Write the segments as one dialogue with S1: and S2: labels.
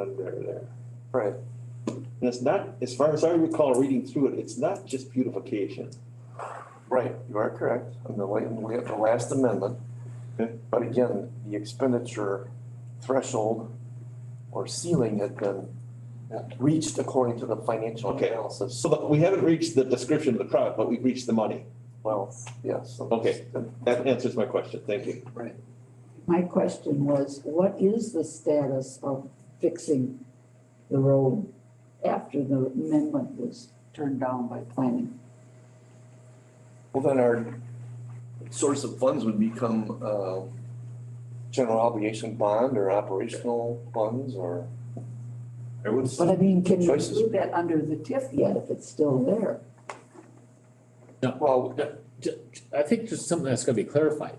S1: under there.
S2: Right.
S1: And it's not, as far as I recall reading through it, it's not just beautification.
S2: Right, you are correct, in the la- in the la- the last amendment.
S1: Okay.
S2: But again, the expenditure threshold or ceiling had been reached according to the financial
S1: Okay.
S2: analysis.
S1: So that we haven't reached the description of the crowd, but we've reached the money.
S2: Well, yes. so-
S1: Okay. That answers my question. Thank you.
S3: My question was, what is the status of fixing the road after the amendment was turned down by planning?
S2: Well, then our source of funds would become uh, general obligation bond or operational funds or.
S4: I would
S3: But I mean, can you
S2: Choices.
S3: do that under the TIF yet if it's still there?
S2: Well,
S5: Ju- I think just something that's gonna be clarified.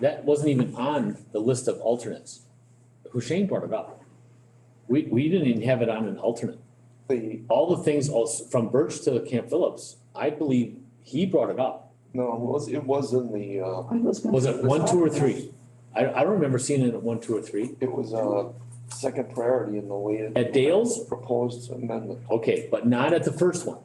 S5: That wasn't even on the list of alternates. Hushain brought it up. We, we didn't even have it on an alternate.
S2: the,
S5: All the things also, from Birch to Camp Phillips, I believe he brought it up.
S2: no, it was, it was in the, uh,
S3: I was gonna.
S5: Was it one, two, or tee. I, I don't remember seeing it at one, two, or three.
S2: it was a second priority in the way. it-
S5: At Dale's?
S2: Proposed amendment.
S5: Okay, but not at the first one.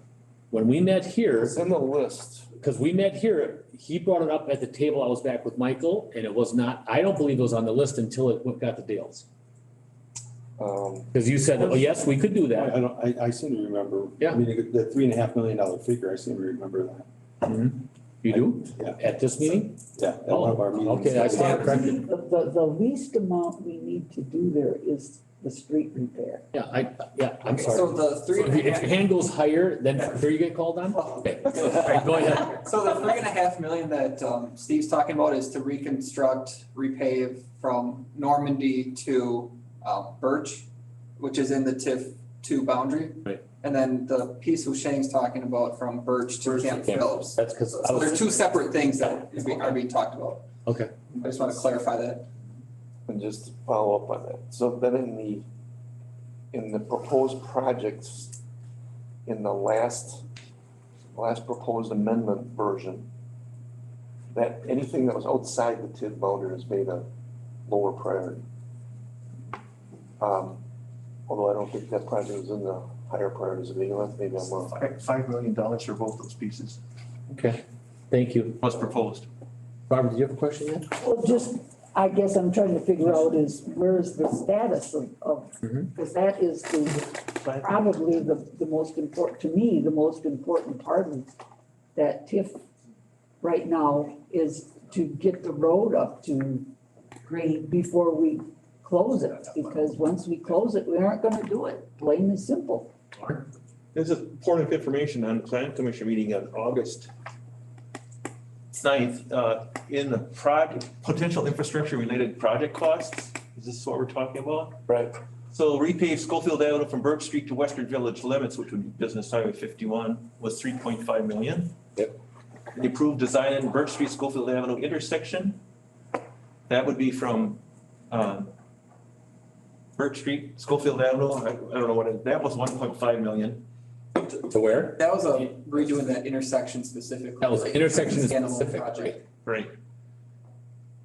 S5: When we met here,
S2: It's in the list.
S5: because we met here, he brought it up at the table. I was back with Michael and it was not, I don't believe it was on the list until it went- got to Dale's.
S2: Um,
S5: Because you said, oh, yes, we could do that.
S6: I don't, I, I seem to remember.
S5: Yeah.
S6: I mean, the three and a half million dollar figure, I seem to remember that.
S5: You do?
S6: Yeah.
S5: At this meeting?
S6: Yeah, at one of our
S5: Oh,
S6: meetings.
S5: okay, I stand corrected.
S3: The, the, the least amount we need to do there is the street repair.
S5: Yeah, I, yeah, I'm sorry.
S7: So the
S5: So
S7: three
S5: If your-
S7: and a
S5: if your
S7: half, Oh.
S5: hand goes higher, then there you get called on? Okay, all right, go ahead.
S7: so the three and a half million that um Steve's talking about is to reconstruct, repave from Normandy to um Birch, which is in the TIF two boundary.
S5: Right.
S7: And then the piece Hushang's talking about from Birch to
S5: Birch to
S7: Camp
S5: Camp.
S7: Phillips.
S5: That's because I
S7: So they're
S5: was,
S7: two separate things that is be- are being talked about.
S5: Okay.
S7: I just want to clarify that.
S2: and just to follow up on that, so then in the, in the proposed projects, in the last, last proposed amendment version, that anything that was outside the TID boundary is made a lower priority. Um, although I don't think that project was in the higher priorities of the, E maybe I'm wrong.
S8: Five, five million dollars for both those pieces
S5: okay, thank you.
S8: was proposed.
S5: Robert, do you have a question yet?
S3: Well, just, I guess I'm trying to figure out is, where is the status of, of,
S5: Mhm.
S3: because that is the, probably the, the most important, to me, the most important part of that TIF right now is to get the road up to grade before we close it, because once we close it, we aren't gonna do it, plain and simple.
S1: There's a point of information on plan commission meeting on August 9th. uh, in the project, potential infrastructure related project costs. Is this what we're talking about?
S2: Right.
S1: So repave Schofield Avenue from Burke Street to Western Village limits, which would be Business Highway fifty-one, was three point five million.
S5: Yep.
S1: The approved design in Burke Street Schofield Avenue intersection, that would be from, um, Burke Street, Schofield Avenue, I, I don't know what, it- that was one point five million.
S5: To where?
S7: That was a redoing that intersection specifically.
S5: That was intersection
S7: It's a standalone
S5: specific,
S7: project.
S5: right?
S1: Right.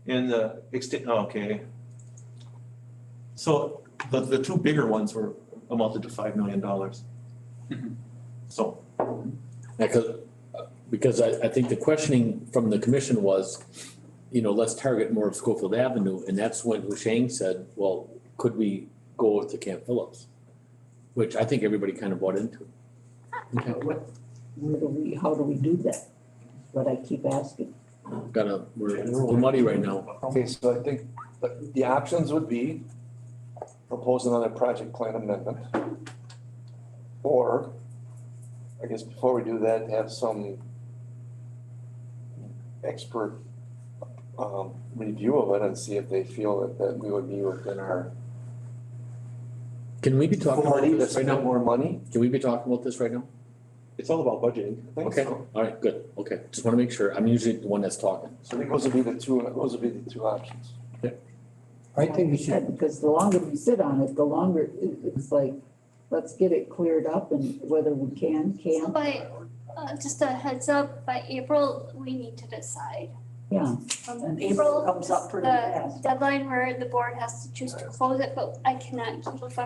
S1: And the extent, okay. So the, the two bigger ones were amounted to five million dollars.
S7: Mhm.
S1: So.
S5: Because, because I, I think the questioning from the commission was, you know, let's target more of Schofield Avenue, and that's when Husheng said, well, could we go to Camp Phillips? Which I think everybody kind of bought into. Okay.
S3: What, where do we, how do we do that? What I keep asking.
S5: Gotta, we're, we're muddy right now.
S2: Okay, so I think the, the options would be propose another project plan amendment. Or, I guess before we do that, have some expert, um, review of it and see if they feel that, that we would be within our.
S5: Can we be talking about
S2: authority to
S5: this right
S2: spend
S5: now?
S2: More money,
S5: Can we be talking about this right now?
S1: It's all about budgeting.
S2: I think
S5: Okay.
S2: so.
S5: All right, good, okay. Just wanna make sure. I'm usually the one that's talking.
S2: So I think those would be the two, those would be the two options.
S3: I think we should. Because the longer we sit on it, the longer, it- it's like, let's get it cleared up and whether we can,
S9: So
S3: can't,
S9: by, uh, just a heads up, by April, we need to decide.
S3: yeah.
S9: From
S3: And April
S9: April,
S3: comes up pretty
S9: the
S3: fast.
S9: deadline where the board has to choose to close it, but I cannot keep a